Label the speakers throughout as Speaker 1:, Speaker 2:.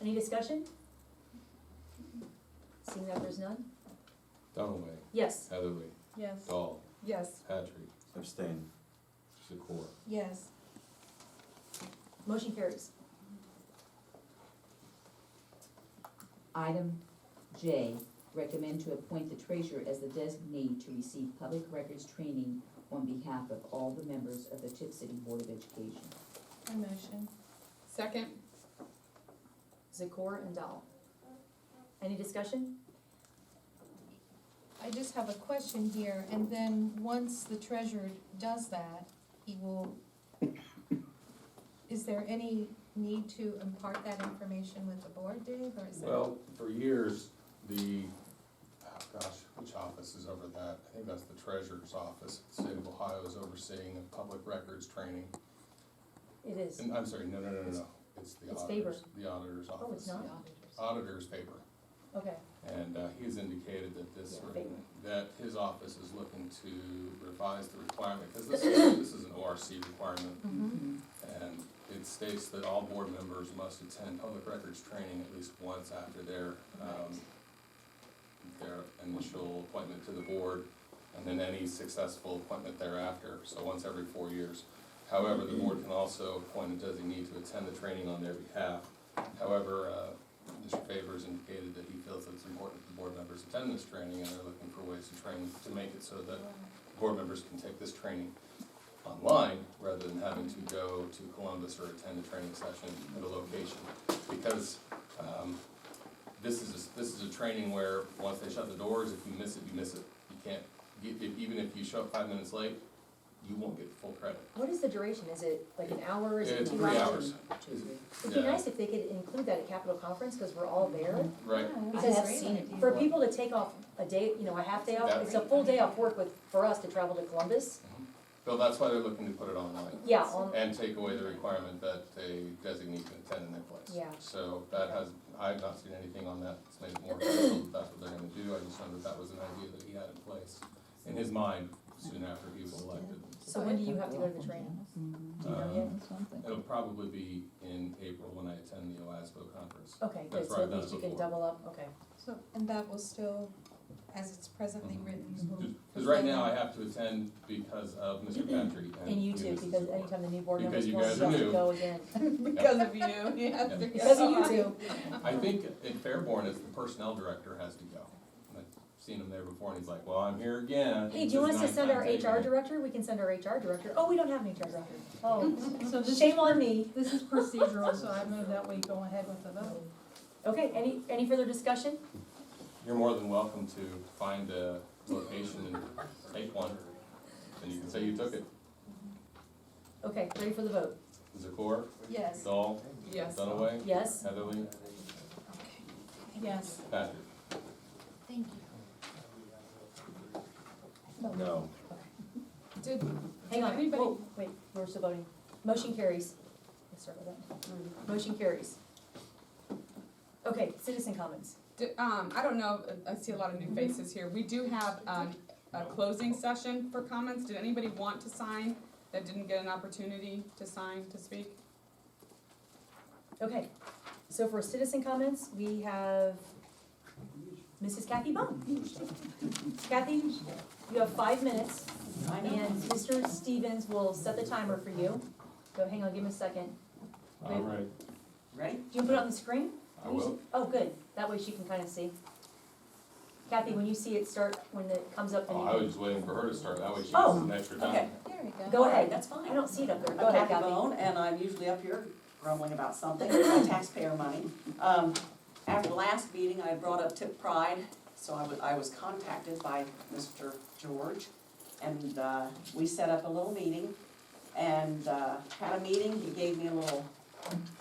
Speaker 1: Any discussion? Seeing that there's none?
Speaker 2: Dunaway,
Speaker 1: Yes.
Speaker 2: Heatherly,
Speaker 3: Yes.
Speaker 2: Dahl,
Speaker 3: Yes.
Speaker 2: Patrick,
Speaker 4: Abstain.
Speaker 2: Secor.
Speaker 3: Yes.
Speaker 1: Motion carries.
Speaker 5: Item J, recommend to appoint the treasurer as the designee to receive public records training on behalf of all the members of the Tip City Board of Education.
Speaker 3: I motion. Second.
Speaker 1: Zakor and Dahl. Any discussion?
Speaker 6: I just have a question here, and then once the treasurer does that, he will, is there any need to impart that information with the board, Dave, or is it?
Speaker 2: Well, for years, the, oh gosh, which office is over that? I think that's the treasurer's office, the state of Ohio is overseeing the public records training.
Speaker 1: It is.
Speaker 2: And I'm sorry, no, no, no, no, no, it's the
Speaker 1: It's Faber.
Speaker 2: auditor's, the auditor's office.
Speaker 1: Oh, it's not?
Speaker 2: Auditor's paper.
Speaker 1: Okay.
Speaker 2: And uh, he's indicated that this,
Speaker 1: Yeah, they-
Speaker 2: that his office is looking to revise the requirement, because this is, this is an ORC requirement.
Speaker 3: Mm-hmm.
Speaker 2: And it states that all board members must attend public records training at least once after their, um, their initial appointment to the board, and then any successful appointment thereafter, so once every four years. However, the board can also appoint a designee to attend the training on their behalf. However, uh, Mr. Favors indicated that he feels that it's important that the board members attend this training, and they're looking for ways to train, to make it so that board members can take this training online rather than having to go to Columbus or attend a training session at a location. Because, um, this is, a- this is a training where, once they shut the doors, if you miss it, you miss it. You can't, e- if- even if you show up five minutes late, you won't get full credit.
Speaker 1: What is the duration? Is it like an hour? Is it
Speaker 2: It's
Speaker 1: two
Speaker 2: three
Speaker 1: hours?
Speaker 2: hours.
Speaker 5: Two, three.
Speaker 1: It'd be
Speaker 2: Yeah.
Speaker 1: nice if they could include that at Capitol Conference, because we're all there.
Speaker 2: Right,
Speaker 5: I
Speaker 1: Because
Speaker 5: have seen it
Speaker 1: For
Speaker 5: before.
Speaker 1: people to take off a day, you know, a half day off,
Speaker 2: That-
Speaker 1: it's a full day off work with, for us to travel to Columbus.
Speaker 2: so that's why they're looking to put it online
Speaker 1: Yeah, on,
Speaker 2: and take away the requirement that a designee can attend in their place.
Speaker 1: Yeah.
Speaker 2: So that has, I've not seen anything on that, it's made more clear that that's what they're gonna do, I just know that that was an idea that he had in place in his mind soon after he was elected.
Speaker 1: so when do you have to go to the training? Do you know
Speaker 2: Um,
Speaker 1: yet?
Speaker 2: It'll probably be in April when I attend the OASBO conference.
Speaker 1: Okay, good,
Speaker 2: That's
Speaker 1: so
Speaker 2: right,
Speaker 1: at
Speaker 2: that's
Speaker 1: least you can
Speaker 2: before.
Speaker 1: double up, okay.
Speaker 6: So, and that will still, as it's presently written,
Speaker 1: Mm-hmm.
Speaker 6: will.
Speaker 2: Cause right now I have to attend because of Mr. Patrick and.
Speaker 1: And you too,
Speaker 2: Mrs.
Speaker 1: because
Speaker 2: Zipper.
Speaker 1: anytime the new board members
Speaker 2: Because you
Speaker 1: want
Speaker 2: guys
Speaker 1: to
Speaker 2: are
Speaker 1: have to
Speaker 2: new.
Speaker 1: go again.
Speaker 3: Because of you, you have to.
Speaker 1: Because of you two.
Speaker 2: I think in Fairborn, it's the personnel director has to go. And I've seen him there before and he's like, well, I'm here again.
Speaker 1: Hey, do you want us to
Speaker 2: This is
Speaker 1: send our
Speaker 2: not taking
Speaker 1: HR
Speaker 2: it."
Speaker 1: director? We can send our HR director. Oh, we don't have an HR director. Oh,
Speaker 3: So this is,
Speaker 1: shame on me.
Speaker 3: this is procedural, so I move that we go ahead with the vote.
Speaker 1: Okay, any, any further discussion?
Speaker 2: You're more than welcome to find a location and take one, and you can say you took it.
Speaker 1: Okay, ready for the vote?
Speaker 2: Zakor,
Speaker 6: Yes.
Speaker 2: Dahl,
Speaker 3: Yes.
Speaker 2: Dunaway,
Speaker 1: Yes?
Speaker 2: Heatherly,
Speaker 3: Yes.
Speaker 2: Patrick.
Speaker 6: Thank you.
Speaker 4: No.
Speaker 3: Did,
Speaker 1: Hang
Speaker 3: Did
Speaker 1: on,
Speaker 3: anybody-
Speaker 1: whoa, wait, we're still voting. Motion carries. Let's start with that. Motion carries. Okay, citizen comments.
Speaker 7: D- Um, I don't know, I I see a lot of new faces here. We do have, um, a closing session for comments. Did anybody want to sign that didn't get an opportunity to sign, to speak?
Speaker 1: Okay, so for citizen comments, we have Mrs. Kathy Bum. Kathy, you have five minutes, and Mr. Stevens will set the timer for you. So hang on, give him a second. All
Speaker 2: right.
Speaker 1: Do you put it on the screen?
Speaker 2: Um, I will.
Speaker 1: Oh, good, that way she can kind of see. Kathy, when you see it start, when it comes up,
Speaker 2: Oh, I was
Speaker 1: then
Speaker 2: just waiting for her to start, that way she gets
Speaker 1: Oh,
Speaker 2: some extra
Speaker 8: Okay.
Speaker 2: time.
Speaker 6: There we go.
Speaker 1: you, go ahead,
Speaker 8: That's fine.
Speaker 1: I don't see it up there, go
Speaker 8: I'm
Speaker 1: ahead,
Speaker 8: Kathy
Speaker 1: Kathy.
Speaker 8: Bone, and I'm usually up here grumbling about something, my taxpayer money. Um, after the last meeting, I brought up tip pride, so I was, I was contacted by Mr. George, and, uh, we set up a little meeting, and, uh, had a meeting, he gave me a little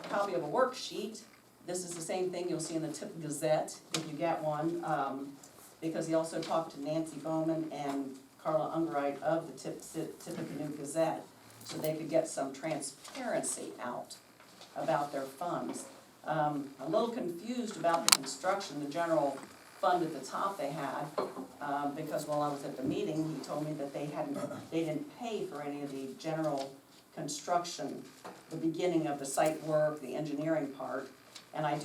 Speaker 8: copy of a worksheet. This is the same thing you'll see in the Tip Gazette, if you get one, um, because he also talked to Nancy Bowman and Carla Ungerite of the Tip, Tippecanoe Gazette so they could get some transparency out about their funds. Um, a little confused about the construction, the general fund at the top they had, um, because while I was at the meeting, he told me that they hadn't, they didn't pay for any of the general construction, the beginning of the site work, the engineering part, and I do